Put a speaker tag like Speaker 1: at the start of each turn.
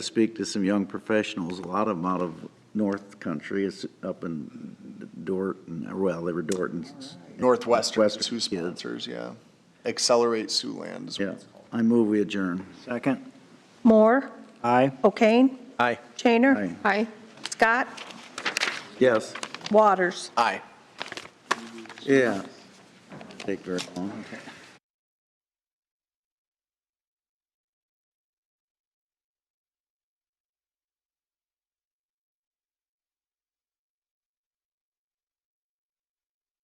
Speaker 1: speak to some young professionals, a lot of them out of North Country, it's up in Dorton, well, they were Dorton's.
Speaker 2: Northwestern is
Speaker 1: Northwestern, yeah.
Speaker 2: who sponsors, yeah. Accelerate Siouxland is what
Speaker 1: Yeah, I move we adjourn.
Speaker 3: Second.
Speaker 4: Moore,
Speaker 3: Aye.
Speaker 4: O'Kane,
Speaker 3: Aye.
Speaker 4: Chaner,
Speaker 5: Aye.
Speaker 4: Scott,
Speaker 1: Yes,
Speaker 4: Waters.
Speaker 2: Aye.
Speaker 1: yeah. Take very long.